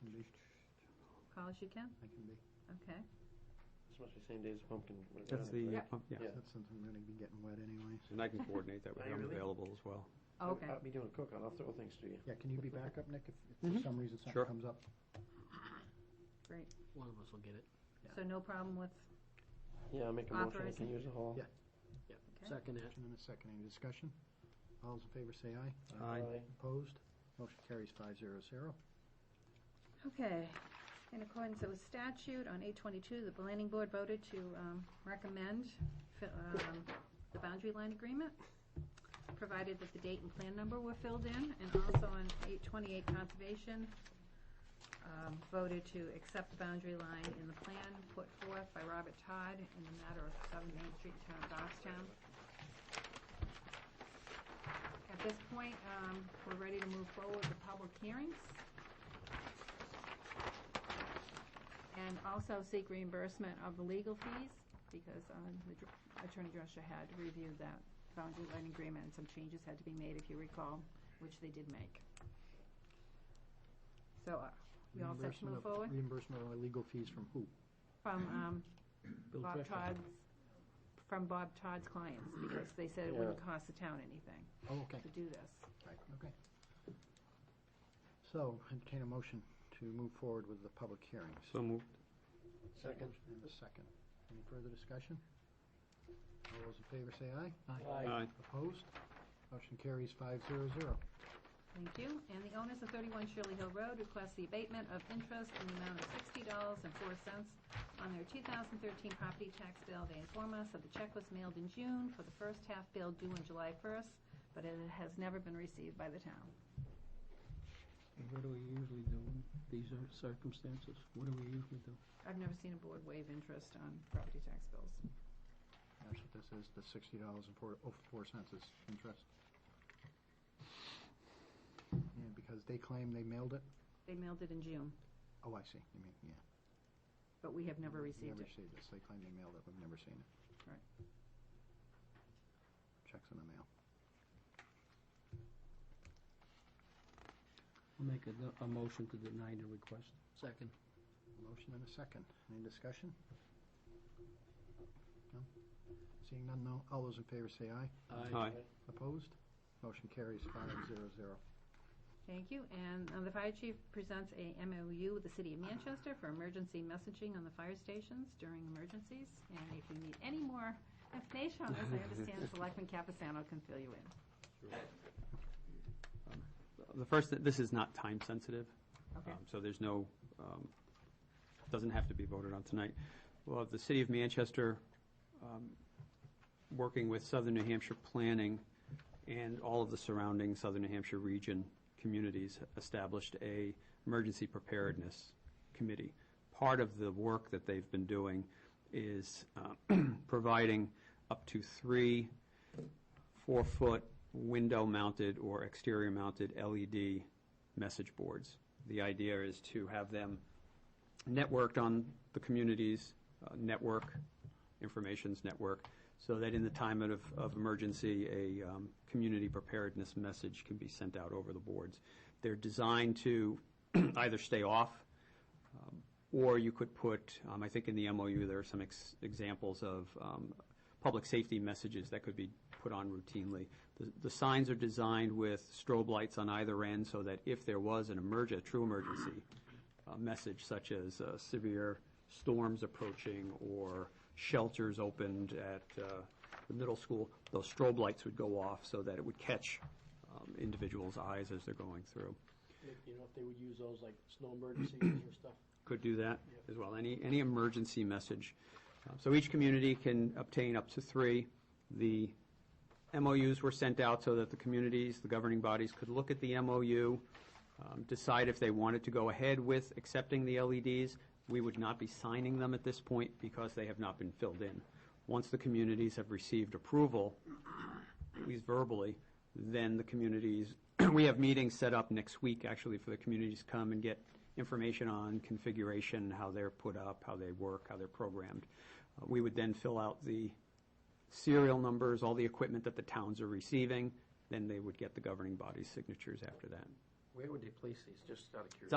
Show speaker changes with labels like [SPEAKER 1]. [SPEAKER 1] can be,
[SPEAKER 2] Call as you can,
[SPEAKER 1] I can be,
[SPEAKER 2] okay.
[SPEAKER 3] This must be same day as pumpkin. right?
[SPEAKER 4] That's the,
[SPEAKER 2] Yeah.
[SPEAKER 4] uh, pump- yeah,
[SPEAKER 3] Yeah.
[SPEAKER 1] that's something really be getting wet anyway.
[SPEAKER 4] and I can coordinate that with
[SPEAKER 3] Are you
[SPEAKER 4] him
[SPEAKER 3] really?
[SPEAKER 4] available as well.
[SPEAKER 3] I'll-
[SPEAKER 2] Okay,
[SPEAKER 3] I'll be doing a cookout. I'll throw things to you.
[SPEAKER 1] Yeah, can you be back up, Nick, if if for some reason something
[SPEAKER 4] Mm-hmm. Sure.
[SPEAKER 1] comes up?
[SPEAKER 2] great.
[SPEAKER 5] One of us will get it.
[SPEAKER 2] So no problem with,
[SPEAKER 3] Yeah, I'll make a motion. I
[SPEAKER 2] Authorizing.
[SPEAKER 3] can use the hall.
[SPEAKER 1] Yeah.
[SPEAKER 2] okay.
[SPEAKER 5] Second it.
[SPEAKER 1] Motion and a second, any discussion? All those in favor say aye.
[SPEAKER 4] Aye.
[SPEAKER 1] Opposed? Motion carries five zero zero.
[SPEAKER 2] Okay, in accordance with statute, on eight twenty-two, the planning board voted to um, recommend fi- um, the boundary line agreement, provided that the date and plan number were filled in, and also on eight twenty-eight conservation, um, voted to accept the boundary line in the plan put forth by Robert Todd in the matter of Seven Main Street, Town of Goffstown. At this point, um, we're ready to move forward with public hearings. And also seek reimbursement of the legal fees, because um, the dr- Attorney Drescher had reviewed that boundary line agreement, and some changes had to be made, if you recall, which they did make. So, uh, we all set to move forward?
[SPEAKER 1] Reimbursement of legal fees from who?
[SPEAKER 2] From um,
[SPEAKER 5] Bill
[SPEAKER 2] Bob
[SPEAKER 5] Drescher.
[SPEAKER 2] Todd's, from Bob Todd's clients, because they said it
[SPEAKER 3] Yeah.
[SPEAKER 2] wouldn't cost the town anything
[SPEAKER 1] Oh, okay.
[SPEAKER 2] to do this.
[SPEAKER 1] Right, okay. So, entertain a motion to move forward with the public hearings.
[SPEAKER 4] So moved.
[SPEAKER 3] Second.
[SPEAKER 1] Motion And a second. Any further discussion? All those in favor say aye.
[SPEAKER 3] Aye.
[SPEAKER 4] Aye.
[SPEAKER 1] Opposed? Motion carries five zero zero.
[SPEAKER 2] Thank you. And the owners of 31 Shirley Hill Road request the abatement of interest in the amount of $60.04 on their 2013 property tax bill. They inform us that the check was mailed in June for the first half bill due on July 1st, but it has never been received by the town.
[SPEAKER 5] What do we usually do in these uh, circumstances? What do we usually do?
[SPEAKER 2] I've never seen a board waive interest on property tax bills.
[SPEAKER 1] That's what this is, the sixty dollars and four, oh, four cents is interest. And because they claim they mailed it,
[SPEAKER 2] They mailed it in June,
[SPEAKER 1] oh, I see, you mean, yeah.
[SPEAKER 2] but we have never
[SPEAKER 1] We
[SPEAKER 2] received
[SPEAKER 1] Never
[SPEAKER 2] it.
[SPEAKER 1] received this, they claim they mailed it, we've never seen it.
[SPEAKER 2] Right.
[SPEAKER 1] Checks in the mail.
[SPEAKER 6] I'll make a, no- a motion to deny the request.
[SPEAKER 5] Second.
[SPEAKER 1] Motion and a second, any discussion? No? Seeing none, no, all those in favor say aye.
[SPEAKER 4] Aye.
[SPEAKER 1] Opposed? Motion carries five zero zero.
[SPEAKER 2] Thank you. And uh, the fire chief presents a MOU with the city of Manchester for emergency messaging on the fire stations during emergencies. And if you need any more information on this, I understand Selectman Capasano can fill you in.
[SPEAKER 4] The first, th- this is not time sensitive,
[SPEAKER 2] Okay,
[SPEAKER 4] um, so there's no, um, doesn't have to be voted on tonight. Well, the city of Manchester, um, working with Southern New Hampshire Planning and all of the surrounding Southern New Hampshire region communities, established a emergency preparedness committee. Part of the work that they've been doing is uh, providing up to three four-foot window-mounted or exterior-mounted LED E message boards. The idea is to have them networked on the community's uh, network, information's network, so that in the time of, of emergency, a um, community preparedness message can be sent out over the boards. They're designed to either stay off um, Or you could put, um, I think in the MOU, there are some ex- examples of um, public safety messages that could be put on routinely. The- The signs are designed with strobe lights on either end so that if there was an emerg, a true emergency uh, message such as uh, severe storms approaching or shelters opened at uh, the middle school, those strobe lights would go off so that it would catch um, individuals' eyes as they're going through.
[SPEAKER 7] You know, if they would use those like snow emergencies or stuff.
[SPEAKER 4] could do that as well, any, any emergency message. Uh, So each community can obtain up to three. The MOUs were sent out so that the communities, the governing bodies could look at the MOU, um, decide if they wanted to go ahead with accepting the LEDs. We would not be signing them at this point because they have not been filled in. Once the communities have received approval, at least verbally, then the communities, we have meetings set up next week, actually, for the communities to come and get information on configuration, how they're put up, how they work, how they're programmed. Uh, We would then fill out the serial numbers, all the equipment that the towns are receiving, then they would get the governing body's signatures after that.
[SPEAKER 3] Where would they place these? Just out of curiosity.